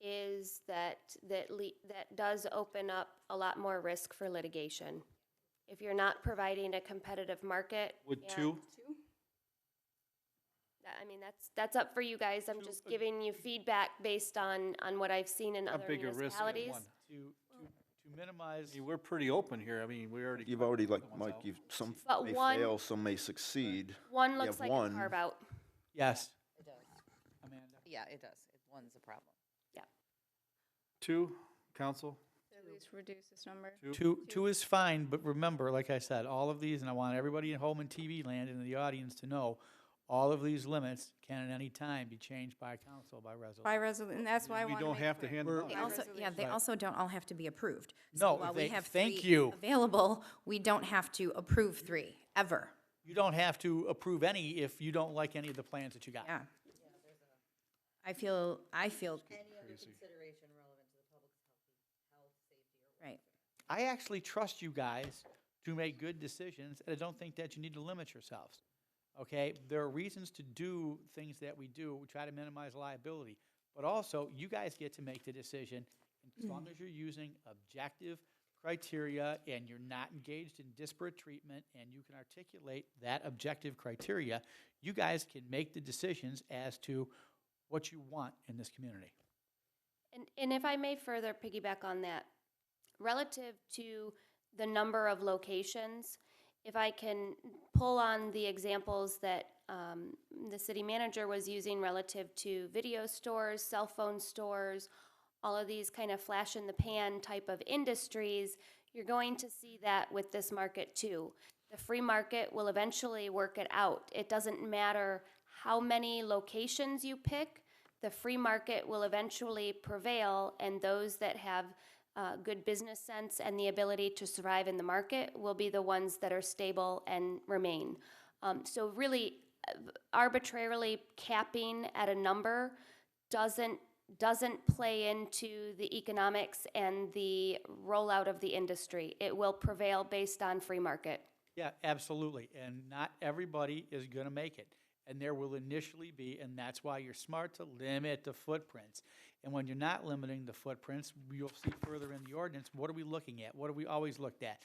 is that, that le, that does open up a lot more risk for litigation. If you're not providing a competitive market. Would and- two, That- I mean, that's, that's up for you guys, I'm just giving you feedback based on, on what I've seen in a other bigger risk than municipalities. one? To, to, to minimize, I mean, We're pretty open here. I mean, we already. You've already, like, Someone's Mike, out. you've, some f- But may one- fail, some may succeed. One You looks have like a one. carve out, yes, It does. Amanda. Yeah, it does. It- One's a problem. Two, council? At least reduce this number. Two, two is fine, but remember, like I said, all of these, and I want everybody at home in TV land and in the audience to know, all of these limits can at any time be changed by council by By resolution. resolution, and that's why I We want to don't make have to clear. hand We're- it They By out. also, yeah, they resolution. also don't all have to be approved. No, So while we thank- have thank three you. Available, we don't have to approve three, ever. You don't have to approve any if you don't like any of the plans that you got. Yeah. I feel, I feel, right. I actually trust you guys to make good decisions, and I don't think that you need to limit yourselves. Okay, there are reasons to do things that we do. We try to minimize liability, but also you guys get to make the decision. And as long as you're using objective criteria and you're not engaged in disparate treatment, and you can articulate that objective criteria, you guys can make the decisions as to what you want in this community. and, and if I may further piggyback on that, relative to the number of locations, if I can pull on the examples that um, the city manager was using relative to video stores, cell phone stores, all of these kind of flash in the pan type of industries, you're going to see that with this market too. The free market will eventually work it out. It doesn't matter how many locations you pick, the free market will eventually prevail, and those that have uh, good business sense and the ability to survive in the market will be the ones that are stable and remain. Um, so, really, uh, arbitrarily capping at a number doesn't doesn't play into the economics and the rollout of the industry. It will prevail based on free market. Yeah, absolutely. And not everybody is going to make it. And there will initially be, and that's why you're smart to limit the footprints. And when you're not limiting the footprints, you'll see further in the ordinance, what are we looking at? What are we always looked at?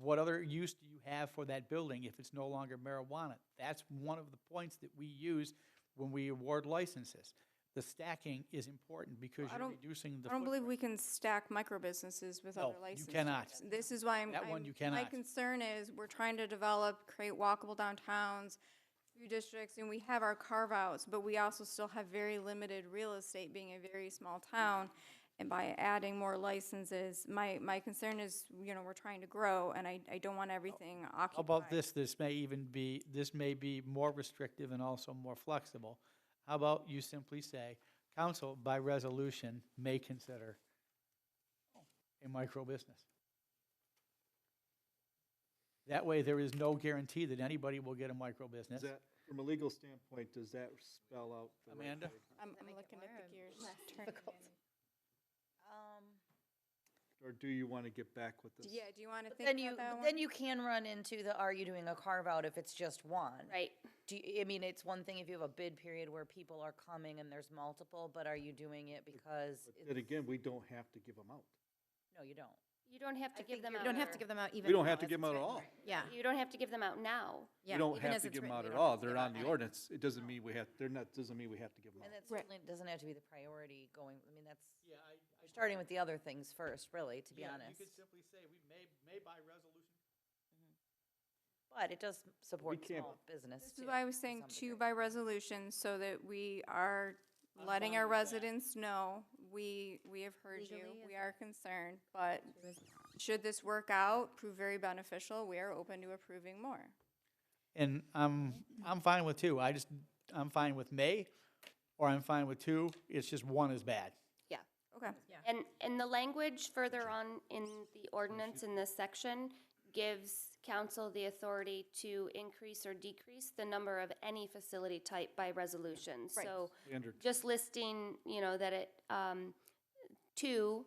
What other use do you have for that building if it's no longer marijuana? That's one of the points that we use when we award licenses. The stacking is important because I you're don't- reducing the I don't believe footprint. we can stack micro businesses with No, other Oh, you licenses. cannot. This is why I'm. That one I'm- you My cannot. concern is, we're trying to develop, create walkable downtowns, food districts, and we have our carve-outs, but we also still have very limited real estate, being a very small town. And by adding more licenses, my, my concern is, you know, we're trying to grow, and I, I don't want everything occupied. How about this, this may even be, this may be more restrictive and also more flexible. How about you simply say, council by resolution may consider a micro business? That way, there is no guarantee that anybody will get a micro business. Does that, from a legal standpoint, does that spell out? the right Amanda? way? I'm, that I'm make it looking more at the or gears less turning. difficult? in. Um, Or do you want to get back with this? Yeah, do you want to But think then you, about that but one? then you can run into the, are you doing a carve-out if it's just one? Right. Do, you- I mean, it's one thing if you have a bid period where people are coming and there's multiple, but are you doing it because? But it's- Then again, we don't have to give them out. No, you don't. You don't have to I give them think you out. You don't have to give them out even. We don't now have to as give it's them out at written. all. Yeah. You don't have to give them out now. yeah, We don't even have as to it's give them written, out at we don't have all. to They're give out on the any. ordinance. It doesn't mean we have, they're not, doesn't mean we have to give them And out. that Right. certainly doesn't have to be the priority going, I mean, that's, you're starting with the other things first, really, to be honest. simply say, we may, may by resolution. But it does support can't- small business This too. is why I was to saying some two degree. by resolution, so that we are I'm letting fine our with that. residents know, we, we have heard you, we are concerned, but should this work out, prove very beneficial, we are open to approving more. And I'm, I'm fine with two. I just, I'm fine with may, or I'm fine with two. It's just one is bad. Okay. And, and the language further on in the ordinance in this section gives council the authority to increase or decrease the number of any facility type by resolution. Right. So Standard. just listing, you know, that it, um, two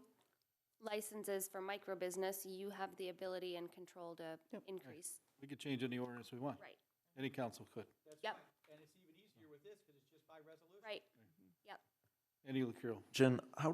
licenses for micro business, you have the ability and control to increase. We could change any ordinance we want. Right. Any council could. Yep, And it's even easier with this because it's just by resolution. right. Any liquor. Jen, how